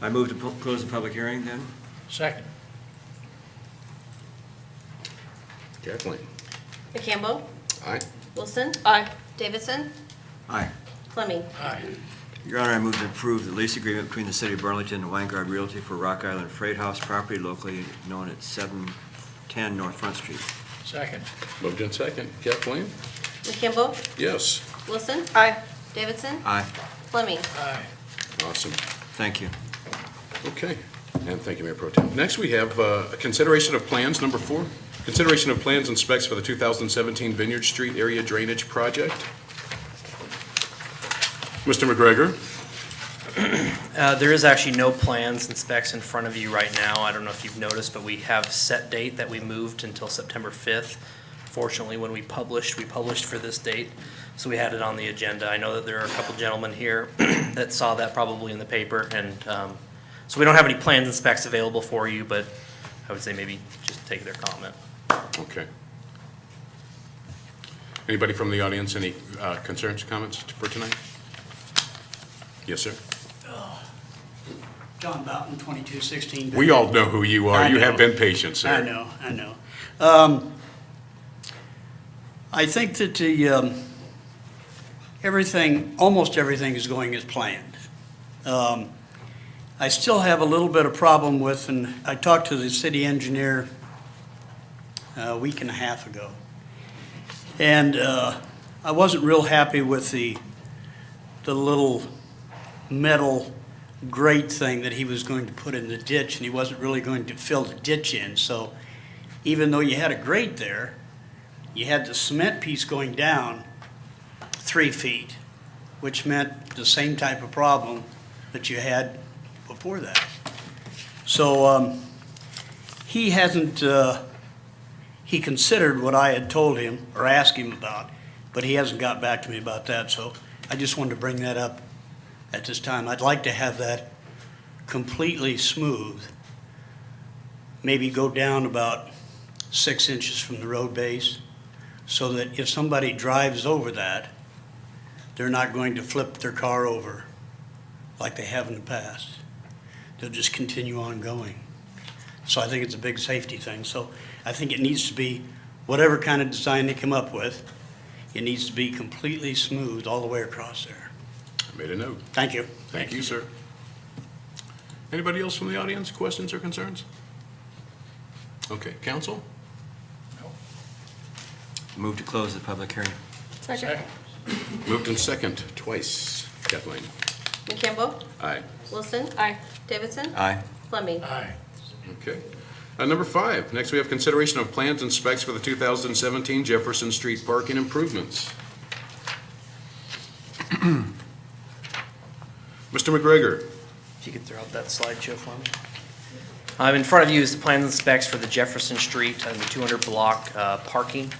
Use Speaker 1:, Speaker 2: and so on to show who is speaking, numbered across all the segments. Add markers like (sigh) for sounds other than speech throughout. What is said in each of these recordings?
Speaker 1: I move to pu- close the public hearing then?
Speaker 2: Second.
Speaker 3: Kathleen?
Speaker 4: McCamble.
Speaker 3: Aye.
Speaker 4: Wilson. Aye. Davidson.
Speaker 1: Aye.
Speaker 4: Fleming.
Speaker 2: Aye.
Speaker 1: Your Honor, I move to approve the lease agreement between the City of Burlington and Weingard Realty for Rock Island Freight House property locally known as 710 North Front Street.
Speaker 2: Second.
Speaker 3: Moved in second. Kathleen?
Speaker 4: McCamble.
Speaker 3: Yes.
Speaker 4: Wilson. Aye. Davidson.
Speaker 1: Aye,
Speaker 4: Fleming.
Speaker 2: Aye.
Speaker 3: Awesome.
Speaker 1: thank you.
Speaker 3: Okay. And thank you, Mayor Pro Tem. Next, we have uh, a consideration of plans, number four. Consideration of plans and specs for the 2017 Vineyard Street Area Drainage Project. Mr. McGregor?
Speaker 5: Uh, There is actually no plans and specs in front of you right now. I don't know if you've noticed, but we have set date that we moved until September 5th. Fortunately, when we published, we published for this date, so we had it on the agenda. I know that there are a couple gentlemen here (clears throat) that saw that probably in the paper, and um, so we don't have any plans and specs available for you, but I would say maybe just take their comment.
Speaker 3: Okay. Anybody from the audience, any uh, concerns, comments for tonight? Yes, sir.
Speaker 6: John Boughton, 2216.
Speaker 3: We all know who you are.
Speaker 6: I
Speaker 3: You
Speaker 6: know.
Speaker 3: have been patient, sir.
Speaker 6: I know, I know. Um, I think that the, um, everything, almost everything is going as planned. Um, I still have a little bit of problem with, and I talked to the city engineer uh, a week and a half ago. And uh, I wasn't real happy with the, the little metal grate thing that he was going to put in the ditch, and he wasn't really going to fill the ditch in. So even though you had a grate there, you had the cement piece going down three feet, which meant the same type of problem that you had before that. So um, he hasn't, uh, he considered what I had told him or asked him about, but he hasn't got back to me about that. So I just wanted to bring that up at this time. I'd like to have that completely smooth, maybe go down about six inches from the road base, so that if somebody drives over that, they're not going to flip their car over like they have in the past. They'll just continue on going. So I think it's a big safety thing. So I think it needs to be, whatever kind of design they come up with, it needs to be completely smooth all the way across there.
Speaker 3: Made a note.
Speaker 6: Thank you.
Speaker 3: Thank you, sir. Anybody else from the audience, questions or concerns? Okay, council?
Speaker 1: Move to close the public hearing.
Speaker 2: Second.
Speaker 3: Moved in second, twice. Kathleen?
Speaker 4: McCamble.
Speaker 3: Aye.
Speaker 4: Wilson. Aye. Davidson.
Speaker 1: Aye,
Speaker 4: Fleming.
Speaker 2: Aye.
Speaker 3: Okay. Uh, Number five, next we have consideration of plans and specs for the 2017 Jefferson Street parking (clears throat) improvements. Mr. McGregor?
Speaker 5: If you could throw out that slideshow for me. Um, in front of you is the plans and specs for the Jefferson Street and the two hundred block, uh, parking.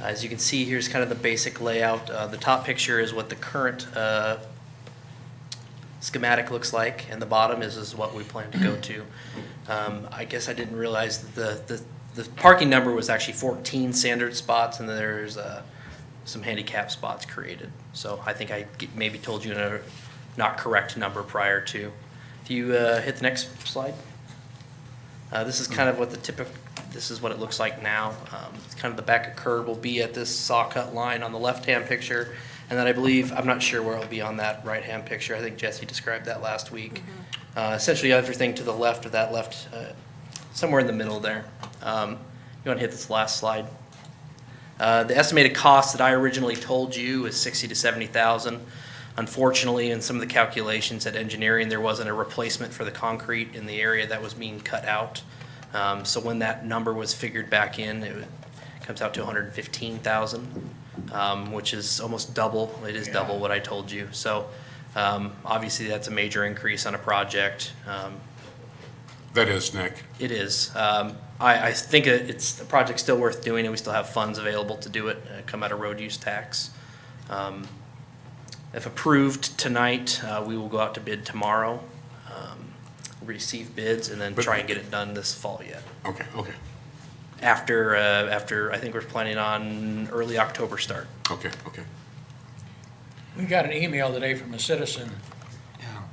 Speaker 5: As you can see, here's kind of the basic layout. Uh, the top picture is what the current, uh, schematic looks like, and the bottom is, is what we plan to go to. Um, I guess I didn't realize that the, the, the parking number was actually fourteen standard spots, and there's, uh, some handicap spots created. So I think I g- maybe told you a not correct number prior to. If you, uh, hit the next slide. Uh, this is kind of what the typical, this is what it looks like now. Um, it's kind of the back of curb will be at this saw cut line on the left-hand picture. And then I believe, I'm not sure where it'll be on that right-hand picture. I think Jesse described that last week. Uh, essentially everything to the left of that left, uh, somewhere in the middle there. Um, you want to hit this last slide? Uh, The estimated cost that I originally told you is sixty to seventy thousand. Unfortunately, in some of the calculations at engineering, there wasn't a replacement for the concrete in the area that was being cut out. Um, So when that number was figured back in, it comes out to hundred and fifteen thousand, um, which is almost double, it is double what I told you. So um, obviously, that's a major increase on a project. Um,
Speaker 3: That is Nick.
Speaker 5: it is. Um, I, I think it- it's, the project's still worth doing, and we still have funds available to do it, uh, come out of road use tax. Um, If approved tonight, uh, we will go out to bid tomorrow, um, receive bids, and then
Speaker 3: But-
Speaker 5: try and get it done this fall yet.
Speaker 3: Okay, okay,
Speaker 5: After, uh, after, I think we're planning on early October start.
Speaker 3: okay, okay.
Speaker 2: We got an email today from a citizen